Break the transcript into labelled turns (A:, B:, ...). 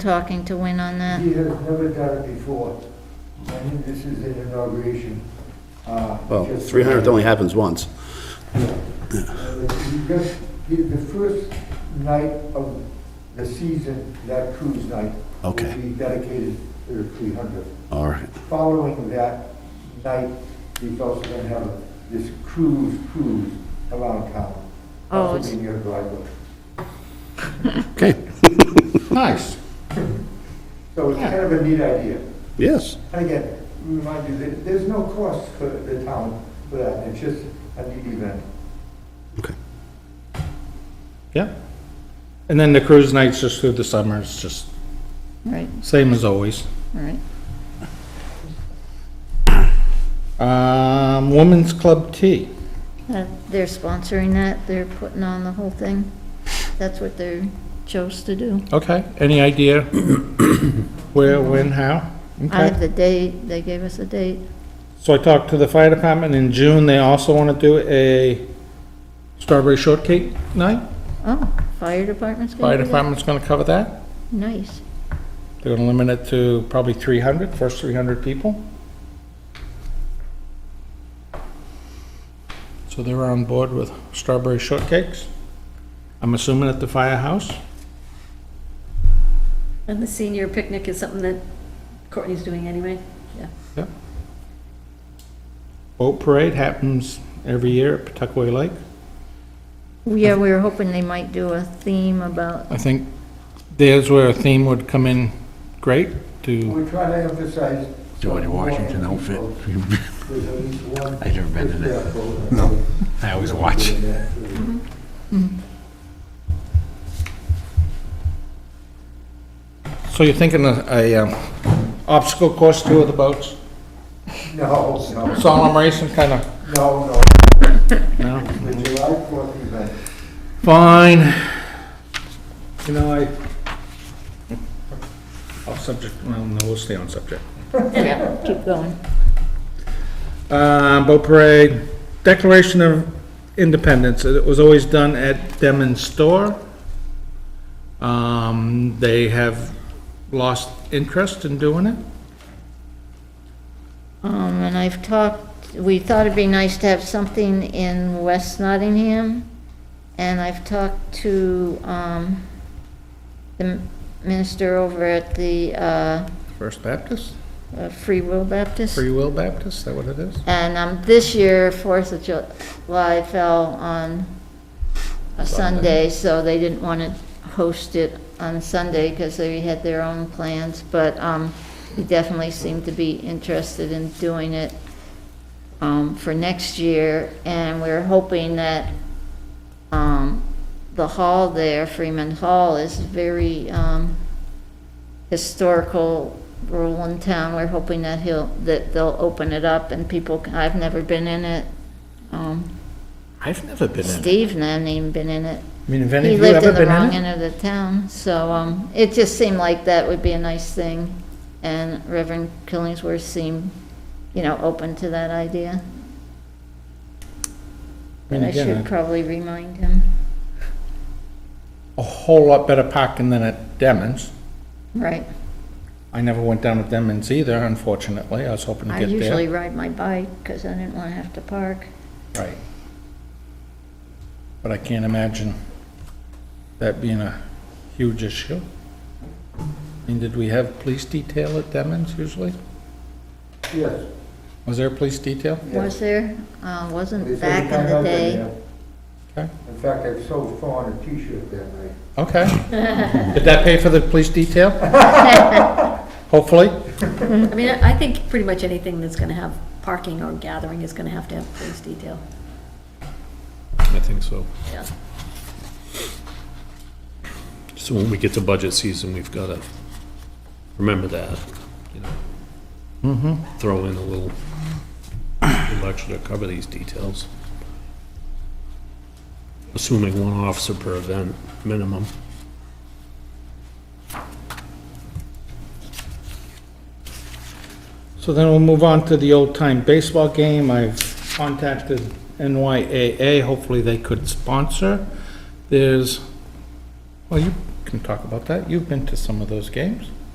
A: talking to Win on that?
B: He has never done it before. I think this is an inauguration. uh,
C: Well,
B: just-
C: 300th only happens once.
B: Uh, He just- he- The first night of the season, that cruise night.
C: Okay.
B: Will be dedicated to the 300th.
C: All right.
B: Following that night, he's also going to have this cruise, cruise around town.
A: Oh,
B: Also
A: it's-
B: be near Glywood.
C: Okay.
D: Nice.
B: So it's kind of a neat idea.
C: Yes.
B: And again, remind you, that there's no cost for the town for that, it's just a neat event.
C: Okay.
D: Yeah. And then the cruise nights just through the summer, it's just Mm-hmm.
A: Right,
D: same as always.
A: right.
D: Um, Women's Club Tea.
A: Uh, They're sponsoring that, they're putting on the whole thing. That's what they chose to do.
D: Okay, any idea where, when, how?
A: I have
D: Okay.
A: the date, they gave us a date.
D: So I talked to the fire department in June, they also want to do a strawberry shortcake night.
A: Oh, fire department's gonna
D: Fire
A: do that?
D: department's going to cover that.
A: Nice.
D: They're going to limit it to probably 300, first 300 people. So they were on board with strawberry shortcakes. I'm assuming at the firehouse.
E: And the senior picnic is something that Courtney's doing anyway, yeah.
D: Boat parade happens every year at Pawtucket Lake.
A: Yeah, we were hoping they might do a theme about,
D: I think there's where a theme would come in great to,
B: We're trying to emphasize.
F: George Washington outfit.
B: There's at least one.
F: I've never been in it.
B: it. No.
F: I always watch.
D: so you're thinking a, a um, obstacle course too with the boats?
B: No, no,
D: Solemn racing kind of,
B: no, no,
D: no?
B: the July fourth event.
D: Fine. You know, I, off subject, well, no, we'll stay on subject.
A: yeah, keep going.
D: Uh, boat parade, Declaration of Independence, it was always done at Demons Store. Um, they have lost interest in doing it.
A: Um, and I've talked, we thought it'd be nice to have something in West Nottingham, and I've talked to, um, the minister over at the, uh,
D: First Baptist,
A: uh, Free Will Baptist.
D: Free Will Baptist, is that what it is?
A: And, um, this year, Fourth of July fell on a Sunday, so they didn't want to host it on Sunday because they had their own plans, but, um, he definitely seemed to be interested in doing it, um, for next year, and we're hoping that, um, the hall there, Freeman Hall, is very, um, historical rural in town. We're hoping that he'll, that they'll open it up and people, I've never been in it. Um,
D: I've never been
A: Steve hasn't even been in it.
D: I mean, have any
A: He
D: of you
A: lived
D: ever
A: in the
D: been
A: wrong
D: in it?
A: end of the town, so, um, it just seemed like that would be a nice thing. And Reverend Killingsworth seemed, you know, open to that idea.
D: mean,
A: And I
D: again,
A: should
D: I-
A: probably remind him,
D: A whole lot better parking than at Demons.
A: right?
D: I never went down to Demons either, unfortunately, I was hoping to
A: I
D: get there.
A: usually ride my bike because I didn't want to have to park.
D: Right. But I can't imagine that being a huge issue. I mean, did we have police detail at Demons usually?
B: Yes.
D: Was there a police detail?
A: Was there, uh, wasn't
B: It's
A: back
B: every
A: in
B: time
A: the
B: I've been
A: day.
B: there.
D: Okay.
B: In fact, I sold Fawn a T-shirt that night.
D: Okay. Did that pay for the police detail? Hopefully.
E: I mean, I think pretty much anything that's gonna have parking or gathering is gonna have to have police detail,
G: I think so.
E: yeah.
G: So when we get to budget season, we've got to remember that, you know. Throw in a little little extra to cover these details. Assuming one officer per event, minimum.
D: So then we'll move on to the old-time baseball game. I've contacted NYAA, hopefully they could sponsor. There's, well, you can talk about that. You've been to some of those games.